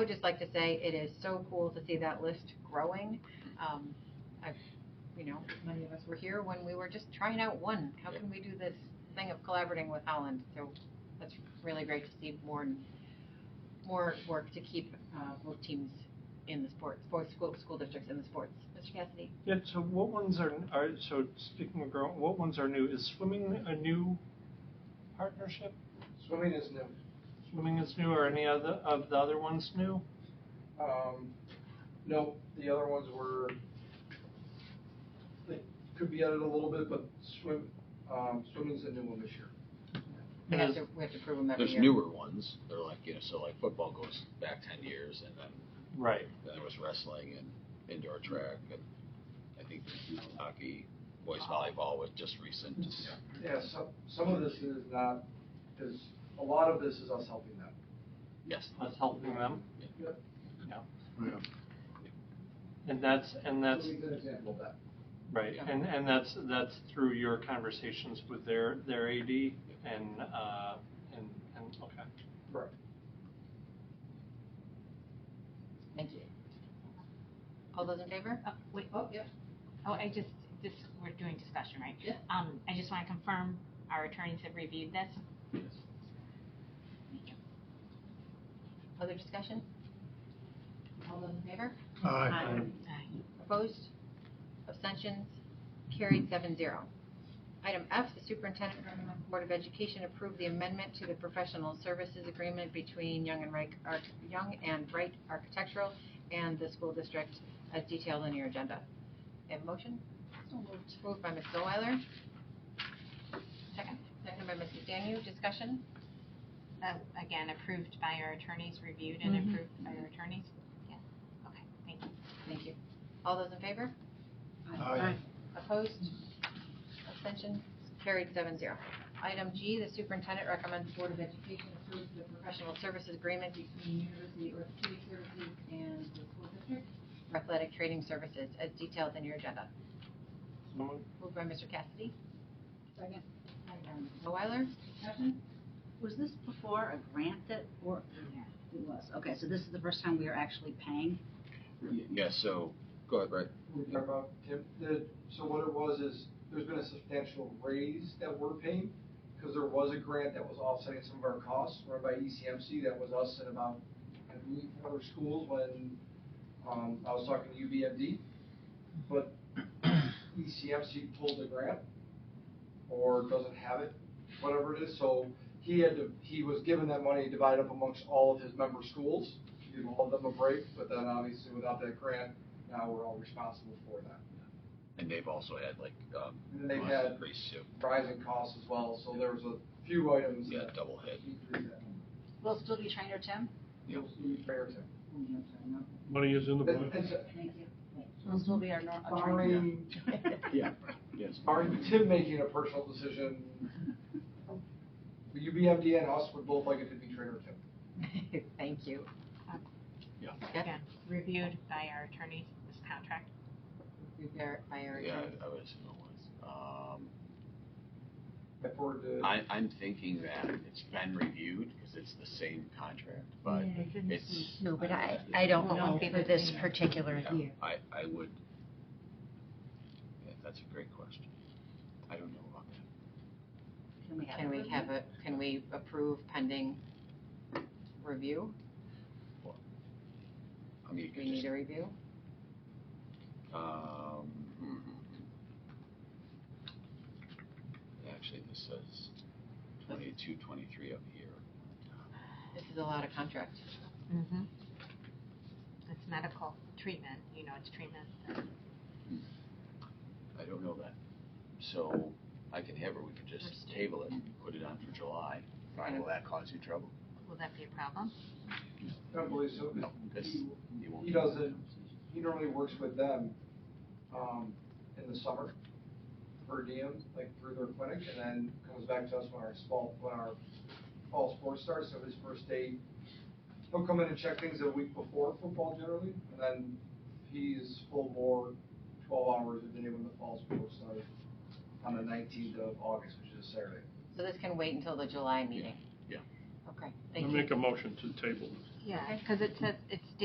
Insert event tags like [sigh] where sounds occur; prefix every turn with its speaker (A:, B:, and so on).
A: I would just like to say it is so cool to see that list growing. Um, I've, you know, many of us were here when we were just trying out one. How can we do this thing of collaborating with Holland? So that's really great to see more and more work to keep uh, both teams in the sports, both school, school districts in the sports. Mr. Cassidy?
B: Yeah, so what ones are, are, so speaking of growing, what ones are new? Is swimming a new partnership?
C: Swimming is new.
B: Swimming is new, or any other, of the other ones new?
C: Um, no, the other ones were, they could be added a little bit, but swim, um, swimming's a new one this year.
A: We
B: And
A: have
B: is-
A: to, we have to prove them every
D: There's
A: year.
D: newer ones, they're like, you know, so like football goes back ten years, and then,
B: Right,
D: then there was wrestling and indoor track, and I think hockey, boys volleyball was just recent.
C: Yeah, some, some of this is not, is, a lot of this is us helping them.
D: Yes.
B: that's helping them,
C: Yep.
B: yeah. And that's, and that's,
C: Swimming's an example of that.
B: right,
A: Yeah.
B: and, and that's, that's through your conversations with their, their AD and, uh, and, and, okay.
C: Correct.
A: Thank you. All those in favor?
E: Oh, wait,
C: Oh, yeah.
E: oh, I just, this, we're doing discussion, right?
A: Yeah.
E: Um, I just want to confirm, our attorneys have reviewed this?
A: Other discussion? All those in favor?
E: Aye. Aye.
A: Opposed? Abstentions? Carried seven zero. Item F, the superintendent recommends the Board of Education approve the amendment to the professional services agreement between Young and Wright, Arch- Young and Wright Architectural and the school district as detailed in your agenda. May I have a motion? Moved by Ms. Zoller. Second. Second by Mrs. Danu. Discussion?
E: Uh, Again, approved by our attorneys, reviewed and
A: Mhm.
E: approved by our attorneys? Yes. Okay, thank you.
A: Thank you. All those in favor?
F: Aye.
A: Opposed? Abstentions? Carried seven zero. Item G, the superintendent recommends the Board of Education approve the professional services agreement between University Orthopedic Services and the school district for athletic training services as detailed in your agenda.
B: So moved.
A: Moved by Mr. Cassidy.
F: Second.
A: Second by Ms. Weiler. [laughs] Discussion?
F: Was this before a grant that, or, it was, okay, so this is the first time we are actually paying?
D: Yeah, so, go ahead, Brett.
C: We talked about, Tim, the, so what it was is, there's been a substantial raise that we're paying, because there was a grant that was offsetting some of our costs, run by E ECMC, that was us and about, and we, other schools, when, um, I was talking to UBMD, but [clears throat] E ECMC pulled the grant, or doesn't have it, whatever it is, so he had to, he was given that money divided up amongst all of his member schools, give all of them a break, but then obviously without that grant, now we're all responsible for that.
D: And they've also had like, um,
C: And then they've
D: cost
C: had
D: increase,
C: [laughs]
D: so,
C: rising costs as well, so there was a few items
D: yeah,
C: that.
D: double hit.
C: decreased that.
F: We'll still be trainer Tim?
D: Yep.
C: Those would be fair to-
F: Oh,
G: Money is in the
C: It-
G: budget.
C: it's-
F: Thank you. We'll still be our nor- our trainer.
C: Barring,
D: Yeah, yes.
C: barring Tim making a personal decision, the UBMD and us would both like it to be trainer Tim.
A: Thank you.
D: Yeah.
A: Yep.
E: Again, reviewed by our attorneys, this contract?
A: Reviewed by our
D: Yeah,
A: attorneys.
D: I would assume it was. Um,
C: If we're to.
D: I, I'm thinking that it's been reviewed, because it's the same contract, but it's.
H: No, but I,
D: don't know.
H: I don't
E: Won't
H: know
E: be the
H: for this
E: same.
H: particular
D: Yeah,
H: year.
D: I, I would, yeah, that's a great question. I don't know about that.
F: [laughs]
A: Can
F: Can we have?
A: we
F: it?
A: have a, can we approve pending review?
D: I mean, you
A: Do we
D: could
A: need
D: just,
A: a review?
D: um, hmm. actually, this says twenty-two, twenty-three up here.
A: This is a lot of contract.
E: Mm-hmm. It's medical treatment, you know, it's treatment.
D: I don't know that. So I can have, her. we could just
E: Understood.
D: table it and put it on for July. Fine, will that cause you trouble?
E: Will that be a problem?
C: I don't believe so. 'cause
D: No, it's-
C: he-
D: You won't.
C: He doesn't, he normally works with them, um, in the summer, per diem, like through their clinic, and then comes back to us when our fall, when our fall sports starts, so his first day, he'll come in and check things a week before football generally, and then he's full bore twelve hours a day when the fall sports start on the nineteenth of August, which is a Saturday.
A: So this can wait until the July meeting?
D: Yeah.
A: Okay,
G: I
A: thank you.
G: make a motion to table this.
E: Yeah,
A: Okay.
E: because it says, it's